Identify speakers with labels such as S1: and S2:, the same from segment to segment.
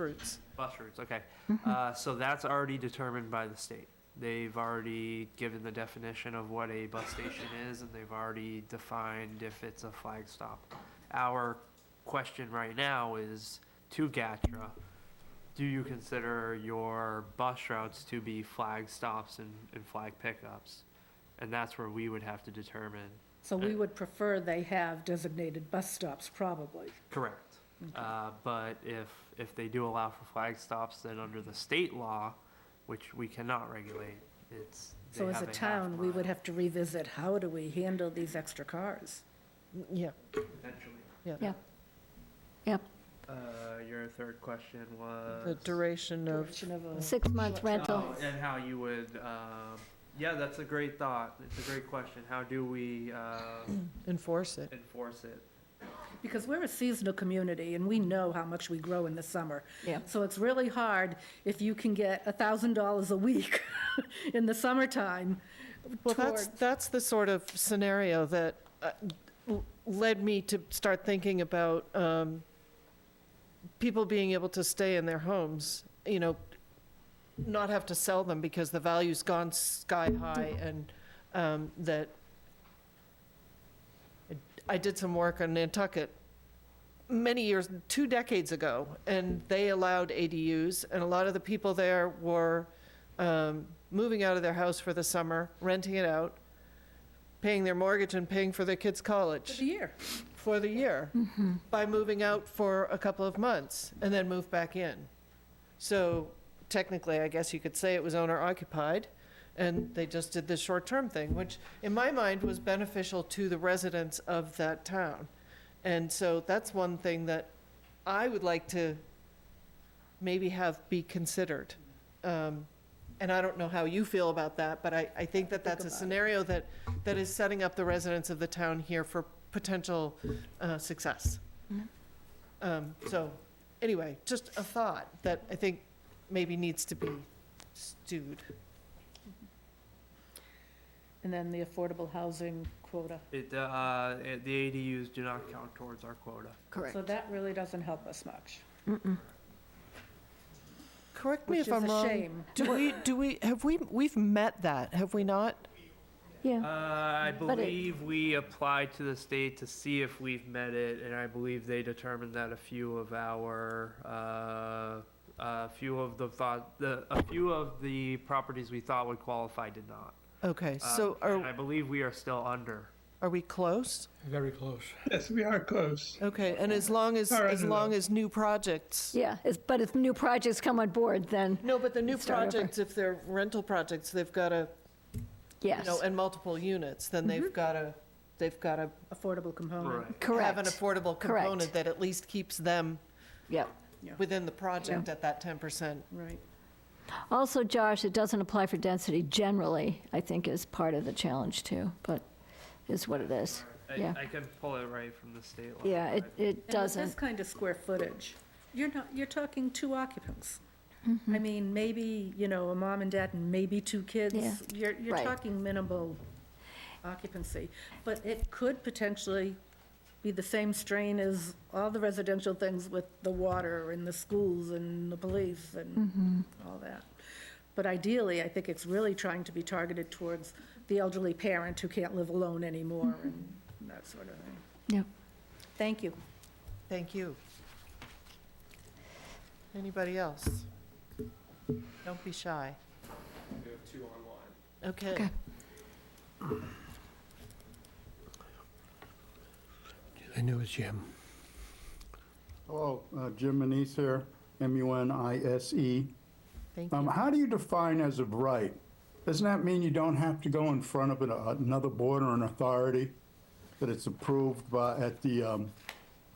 S1: routes.
S2: Bus routes, okay. Uh, So that's already determined by the state. They've already given the definition of what a bus station is, and they've already defined if it's a flag stop. Our question right now is to GATRA, do you consider your bus routes to be flag stops and, and flag pickups? And that's where we would have to determine,
S1: So
S2: Uh,
S1: we would prefer they have designated bus stops, probably.
S2: correct. Uh, But if, if they do allow for flag stops, then under the state law, which we cannot regulate, it's. they
S1: So as
S2: have
S1: a
S2: half
S1: town, we would
S2: mile,
S1: have to revisit, how do we handle these extra cars?
S3: Yeah,
S2: potentially.
S3: yeah.
S4: Yeah. Yep,
S2: Uh, Your third question was.
S3: The duration of,
S1: Direction of a-
S4: six-month rental.
S2: Oh, And how you would, um, yeah, that's a great thought. It's a great question. How do we uh,
S3: enforce it.
S2: enforce it?
S1: Because we're a seasonal community, and we know how much we grow in the summer.
S4: Yeah.
S1: So it's really hard if you can get $1,000 a week in the summertime
S3: Well, that's,
S1: toward-
S3: that's the sort of scenario that uh, l- led me to start thinking about um, people being able to stay in their homes, you know, not have to sell them because the value's gone sky high and um, that I did some work on Nantucket many years, two decades ago, and they allowed ADUs, and a lot of the people there were um, moving out of their house for the summer, renting it out, paying their mortgage and paying for their kids'
S1: for
S3: college
S1: the year.
S3: for the year by moving out for a couple of months and then move back in. So technically, I guess you could say it was owner occupied, and they just did this short term thing, which in my mind was beneficial to the residents of that town. And so that's one thing that I would like to maybe have be considered. Um, and I don't know how you feel about that, but I, I think that that's a
S1: about it.
S3: scenario that, that is setting up the residents of the town here for potential uh, success.
S4: Mhm.
S3: Um, So, anyway, just a thought that I think maybe needs to be stewed.
S1: And then the affordable housing quota.
S2: It, uh, it- the ADUs do not count towards our quota.
S4: Correct.
S1: So that really doesn't help us much,
S3: Correct me
S1: which
S3: if
S1: is
S3: I'm
S1: a
S3: wrong.
S1: shame.
S3: Do we, do we, have we, we've met that, have we not?
S2: Uh,
S4: Yeah,
S2: I
S4: But it-
S2: believe we applied to the state to see if we've met it, and I believe they determined that a few of our, uh, a few of the thought, the, a few of the properties we thought would qualify did not.
S3: Okay,
S2: Uh,
S3: so
S2: and I
S3: are,
S2: believe we are still under.
S3: are we close?
S5: Very close.
S6: Yes, we are close.
S3: Okay, and as long as,
S6: All right,
S3: as
S6: no,
S3: long
S6: no.
S3: as new projects.
S4: yeah, it's- but if new projects come on board, then
S3: No, but the new
S4: Start over.
S3: projects, if they're rental projects, they've got to, you
S4: yes, Mm-hmm.
S3: know, and multiple units, then they've got to, they've got to
S1: Affordable component.
S3: have an
S4: correct.
S3: affordable
S4: Correct.
S3: component that at least keeps them
S4: Yep.
S3: within the project at that 10%.
S1: Right.
S4: Also, Josh, it doesn't apply for density generally, I think is part of the challenge too, but is what it is. Yeah,
S2: I, I can pull it right from the state law.
S4: yeah, it,
S2: but-
S4: it
S1: And with this
S4: doesn't.
S1: kind of square footage, you're not, you're talking two occupants.
S4: Mm-hmm.
S1: I mean, maybe, you know, a mom and dad and maybe two
S4: Yeah.
S1: kids. You're, you're
S4: Right.
S1: talking minimal occupancy. But it could potentially be the same strain as all the residential things with the water and the schools and the police
S4: Mm-hmm.
S1: and all that. But ideally, I think it's really trying to be targeted towards the elderly parent who can't live alone anymore and that sort of thing.
S4: Mm-hmm. Yep.
S1: Thank you.
S3: Thank you. Anybody else? Don't be shy. We have two online. Okay.
S4: Okay.
S5: I knew it was Jim.
S7: Hello, uh, Jim Manise here, M-U-N-I-S-E.
S3: Thank
S7: E. Um,
S3: you.
S7: How do you define as of right? Doesn't that mean you don't have to go in front of an- another board or an authority, that it's approved by, at the um,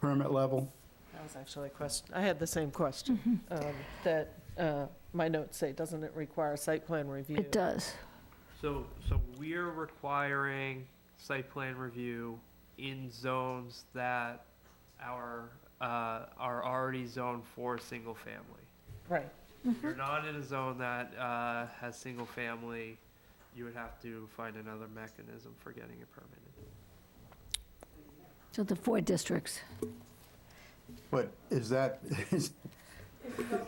S7: permit level?
S3: That was actually a question. I had the same question. um, That, uh, my notes say, doesn't it require site plan review?
S4: It does.
S2: So, so we're requiring site plan review in zones that our, uh, are already zoned for single family.
S3: Right.
S2: If you're not in a zone that, uh, has single family, you would have to find another mechanism for getting it permitted.
S4: So the four districts.
S7: But is that, is,